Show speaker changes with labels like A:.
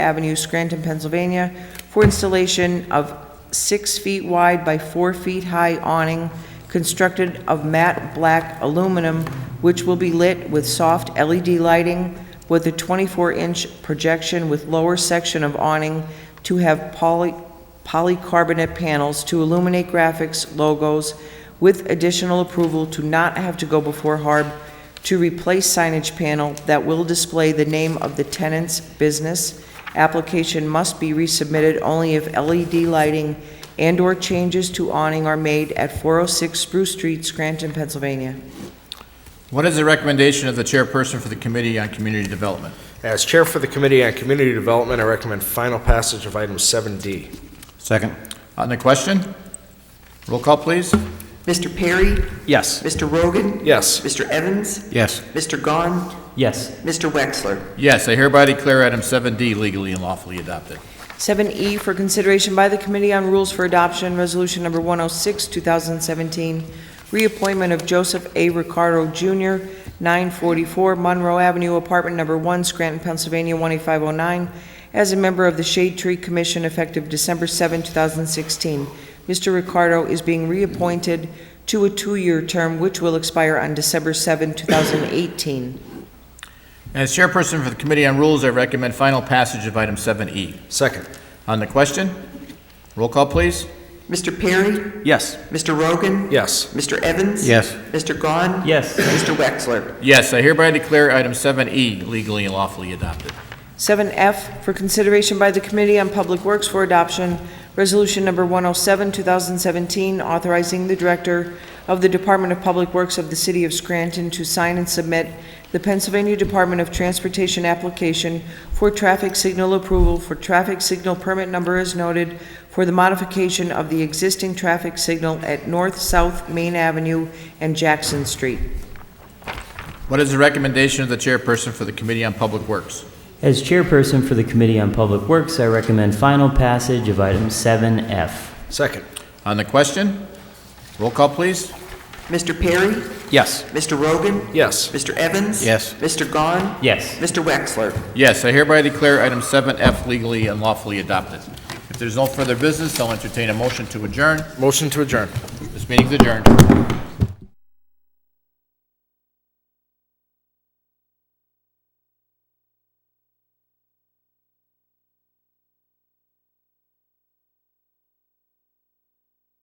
A: Avenue, Scranton, Pennsylvania, for installation of six feet wide by four feet high awning constructed of matte black aluminum, which will be lit with soft LED lighting with a 24-inch projection with lower section of awning to have poly, polycarbonate panels to illuminate graphics, logos, with additional approval to not have to go before HARB to replace signage panel that will display the name of the tenant's business. Application must be resubmitted only if LED lighting and/or changes to awning are made at 406 Spruce Street, Scranton, Pennsylvania.
B: What is the recommendation of the chairperson for the Committee on Community Development?
C: As Chair for the Committee on Community Development, I recommend final passage of item 7D.
B: Second. On the question? Roll call, please.
D: Mr. Perry?
E: Yes.
D: Mr. Rogan?
C: Yes.
D: Mr. Evans?
B: Yes.
D: Mr. Gahn?
E: Yes.
D: Mr. Wexler?
B: Yes, I hereby declare item 7D legally and lawfully adopted.
A: 7E E for consideration by the Committee on Rules for Adoption, Resolution Number 106, 2017, reappointment of Joseph A. Ricardo Jr., 944 Monroe Avenue, Apartment Number 1, Scranton, Pennsylvania, 18509, as a member of the Shade Tree Commission effective December 7, 2016. Mr. Ricardo is being reappointed to a two-year term which will expire on December 7, 2018.
B: As chairperson for the Committee on Rules, I recommend final passage of item 7E.
C: Second.
B: On the question? Roll call, please.
D: Mr. Perry?
E: Yes.
D: Mr. Rogan?
C: Yes.
D: Mr. Evans?
B: Yes.
D: Mr. Gahn?
E: Yes.
D: Mr. Wexler?
B: Yes, I hereby declare item 7E legally and lawfully adopted.
A: 7F for consideration by the Committee on Public Works for Adoption, Resolution Number 107, 2017, authorizing the Director of the Department of Public Works of the City of Scranton to sign and submit the Pennsylvania Department of Transportation application for traffic signal approval for traffic signal permit number as noted for the modification of the existing traffic signal at North-South Main Avenue and Jackson Street.
B: What is the recommendation of the chairperson for the Committee on Public Works?
F: As chairperson for the Committee on Public Works, I recommend final passage of item 7F.
C: Second.
B: On the question? Roll call, please.
D: Mr. Perry?
E: Yes.
D: Mr. Rogan?
C: Yes.
D: Mr. Evans?
B: Yes.
D: Mr. Gahn?
F: Yes.
D: Mr. Wexler?
B: Yes, I hereby declare item 7F legally and lawfully adopted. If there's no further business, I'll entertain a motion to adjourn.
C: Motion to adjourn.
B: This meeting's adjourned.